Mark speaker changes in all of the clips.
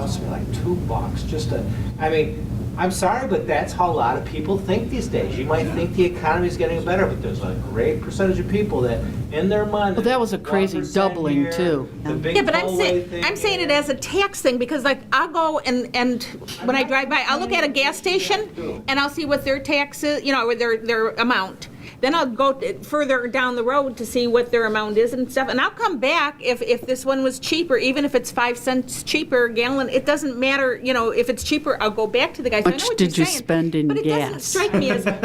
Speaker 1: cost me like two bucks just to, I mean, I'm sorry, but that's how a lot of people think these days. You might think the economy's getting better, but there's a great percentage of people that in their mind.
Speaker 2: Well, that was a crazy
Speaker 1: 1%
Speaker 2: doubling,
Speaker 1: here,
Speaker 2: too.
Speaker 1: The big
Speaker 3: Yeah, but I'm
Speaker 1: tollway
Speaker 3: saying,
Speaker 1: thing.
Speaker 3: I'm saying it as a tax thing, because like, I'll go and, and when I drive by, I'll look at a gas station, and I'll see what their taxes, you know, or their, their amount. Then I'll go t- further down the road to see what their amount is and stuff, and I'll come back if, if this one was cheaper, even if it's five cents cheaper a gallon, it doesn't matter, you know, if it's cheaper, I'll go back to the guy. So I know
Speaker 2: Much
Speaker 3: what
Speaker 2: did
Speaker 3: you're
Speaker 2: you
Speaker 3: saying,
Speaker 2: spend in
Speaker 3: But it doesn't
Speaker 2: gas?
Speaker 3: strike me as ta-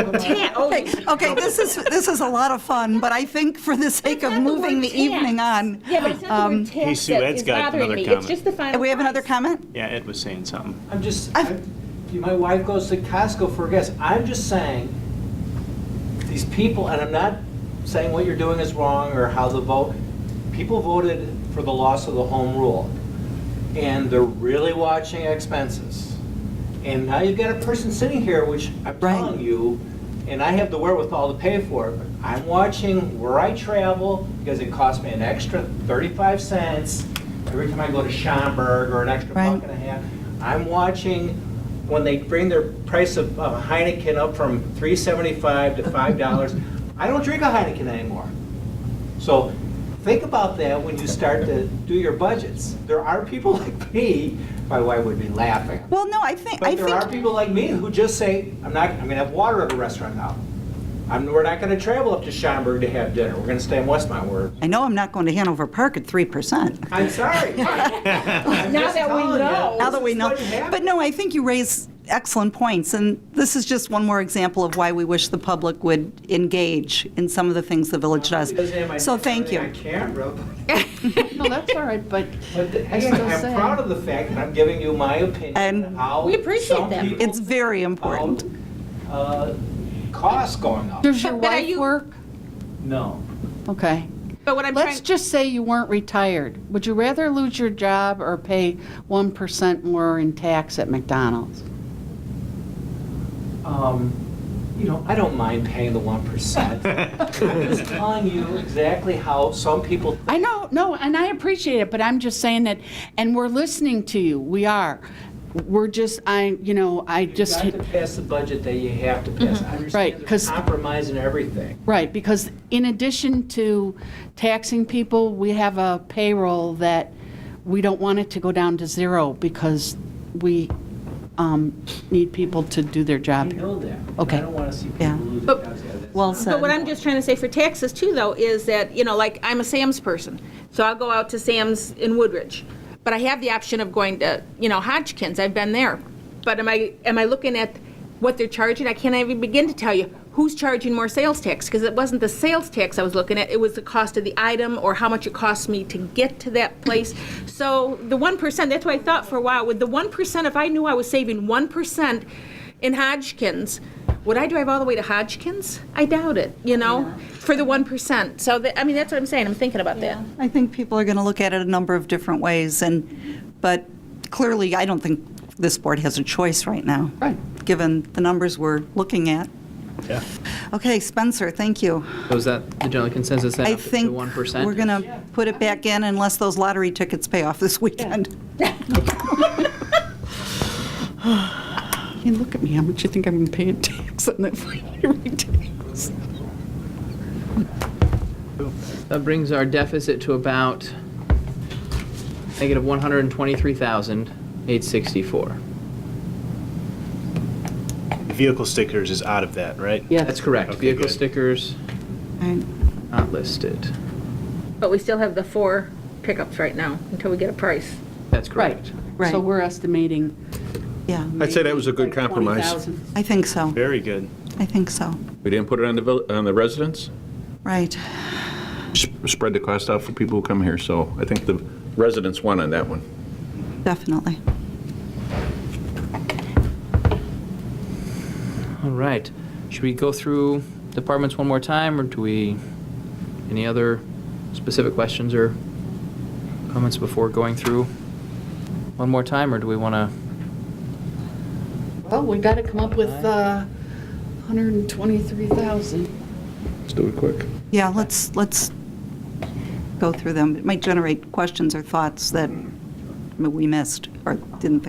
Speaker 3: oh,
Speaker 4: Okay, okay, this is, this is a lot of fun, but I think for the sake of
Speaker 3: Not the
Speaker 4: moving
Speaker 3: word
Speaker 4: the
Speaker 3: tax.
Speaker 4: evening on,
Speaker 3: Yeah, but it's not the word
Speaker 5: Hey,
Speaker 3: tax
Speaker 5: Sue,
Speaker 3: that
Speaker 5: Ed's
Speaker 3: is
Speaker 5: got
Speaker 3: bothering
Speaker 5: another
Speaker 3: me. It's
Speaker 5: comment.
Speaker 3: just the final
Speaker 4: do we have another
Speaker 3: price.
Speaker 4: comment?
Speaker 5: Yeah, Ed was saying something.
Speaker 1: I'm just,
Speaker 4: I've-
Speaker 1: I'm- you- my wife goes to Costco for gas. I'm just saying, these people, and I'm not saying what you're doing is wrong or how the vote, people voted for the loss of the home rule, and they're really watching expenses. And now you've got a person sitting here, which I'm
Speaker 4: Right.
Speaker 1: telling you, and I have the wherewithal to pay for it, but I'm watching where I travel, because it costs me an extra 35 cents every time I go to Schaumburg, or an extra
Speaker 4: Right.
Speaker 1: buck and a half. I'm watching when they bring their price of of Heineken up from 3.75 to $5. I don't drink a Heineken anymore. So think about that when you start to do your budgets. There are people like me, my wife would be laughing.
Speaker 4: Well, no, I think, I
Speaker 1: But there are
Speaker 4: think,
Speaker 1: people like me who just say, I'm not, I'm gonna have water at a restaurant now. I'm, we're not gonna travel up to Schaumburg to have dinner, we're gonna stay in Westmont, we're,
Speaker 4: I know I'm not going to Hanover Park at 3%.
Speaker 1: I'm sorry.
Speaker 3: Now that we know.
Speaker 4: Now that we know, but no, I think you raise excellent points, and this is just one more example of why we wish the public would engage in some of the things the village does. So thank
Speaker 1: On
Speaker 4: you.
Speaker 1: camera,
Speaker 2: No, that's all right, but
Speaker 1: but the-
Speaker 2: I still
Speaker 1: I'm
Speaker 2: say-
Speaker 1: proud of the fact that I'm giving you my opinion on
Speaker 4: And-
Speaker 1: how.
Speaker 3: We appreciate
Speaker 1: some
Speaker 3: that.
Speaker 1: people
Speaker 4: It's very important.
Speaker 1: felt, uh, Costs going up.
Speaker 2: does your
Speaker 3: But- but are
Speaker 2: wife
Speaker 3: you-
Speaker 2: work?
Speaker 1: No.
Speaker 2: Okay.
Speaker 3: But what I'm trying.
Speaker 2: Let's just say you weren't retired. Would you rather lose your job or pay 1% more in tax at McDonald's?
Speaker 1: um, you know, I don't mind paying the one percent. I'm just telling you exactly how some people.
Speaker 2: I know, no, and I appreciate it, but I'm just saying that, and we're listening to you, we are. We're just, I, you know, I just,
Speaker 1: You've got to pass the budget that you have to pass. I
Speaker 2: Right,
Speaker 1: understand there's
Speaker 2: 'cause-
Speaker 1: compromise in everything.
Speaker 2: right, because in addition to taxing people, we have a payroll that we don't want it to go down to zero because we um, need people to do their
Speaker 1: I
Speaker 2: job here.
Speaker 1: know that.
Speaker 2: Okay.
Speaker 1: I don't want to see people
Speaker 4: Yeah.
Speaker 1: lose their
Speaker 3: But-
Speaker 1: jobs. Yeah, that's
Speaker 4: Well
Speaker 1: not-
Speaker 4: said.
Speaker 3: But what I'm just trying to say for taxes too, though, is that, you know, like, I'm a Sam's person, so I'll go out to Sam's in Woodridge. But I have the option of going to, you know, Hodgkins, I've been there. But am I, am I looking at what they're charging? I can't even begin to tell you who's charging more sales tax, because it wasn't the sales tax I was looking at, it was the cost of the item or how much it costs me to get to that place. So the one percent, that's what I thought for a while, with the one percent, if I knew I was saving one percent in Hodgkins, would I drive all the way to Hodgkins? I doubt it, you know, for the 1%. So, that- I mean, that's what I'm saying, I'm thinking about that.
Speaker 4: I think people are going to look at it a number of different ways, and, but clearly, I don't think this board has a choice right now.
Speaker 2: Right.
Speaker 4: Given the numbers we're looking at. Okay, Spencer, thank you.
Speaker 6: So is that the general consensus then
Speaker 4: I
Speaker 6: up to
Speaker 4: think we're
Speaker 6: 1%?
Speaker 4: going to put it back in unless those lottery tickets pay off this weekend.
Speaker 2: Hey, look at me, how much you think I'm paying tax on that every day?
Speaker 6: That brings our deficit to about negative 123,864.
Speaker 5: Vehicle stickers is out of that, right?
Speaker 6: That's correct.
Speaker 5: Okay,
Speaker 6: Vehicle
Speaker 5: good.
Speaker 6: stickers
Speaker 4: Right.
Speaker 6: not listed.
Speaker 3: But we still have the four pickups right now until we get a price.
Speaker 6: That's
Speaker 2: Right,
Speaker 6: correct.
Speaker 4: Right.
Speaker 2: so we're estimating.
Speaker 4: Yeah,
Speaker 7: I'd say that was a good
Speaker 2: like
Speaker 7: compromise.
Speaker 2: 20,000.
Speaker 4: I think so.
Speaker 5: Very good.
Speaker 4: I think so.
Speaker 7: We didn't put it on the, vil- on the residents,
Speaker 4: Right.
Speaker 7: S- spread the cost out for people who come here, so I think the residents won on that one.
Speaker 4: Definitely.
Speaker 6: All right. Should we go through departments one more time, or do we, any other specific questions or comments before going through one more time, or do we want to?
Speaker 2: Well, Oh, we got to come up with uh, 123,000.
Speaker 7: Let's do it quick.
Speaker 4: Yeah, let's, let's go through them. It might generate questions or thoughts that we missed or didn't think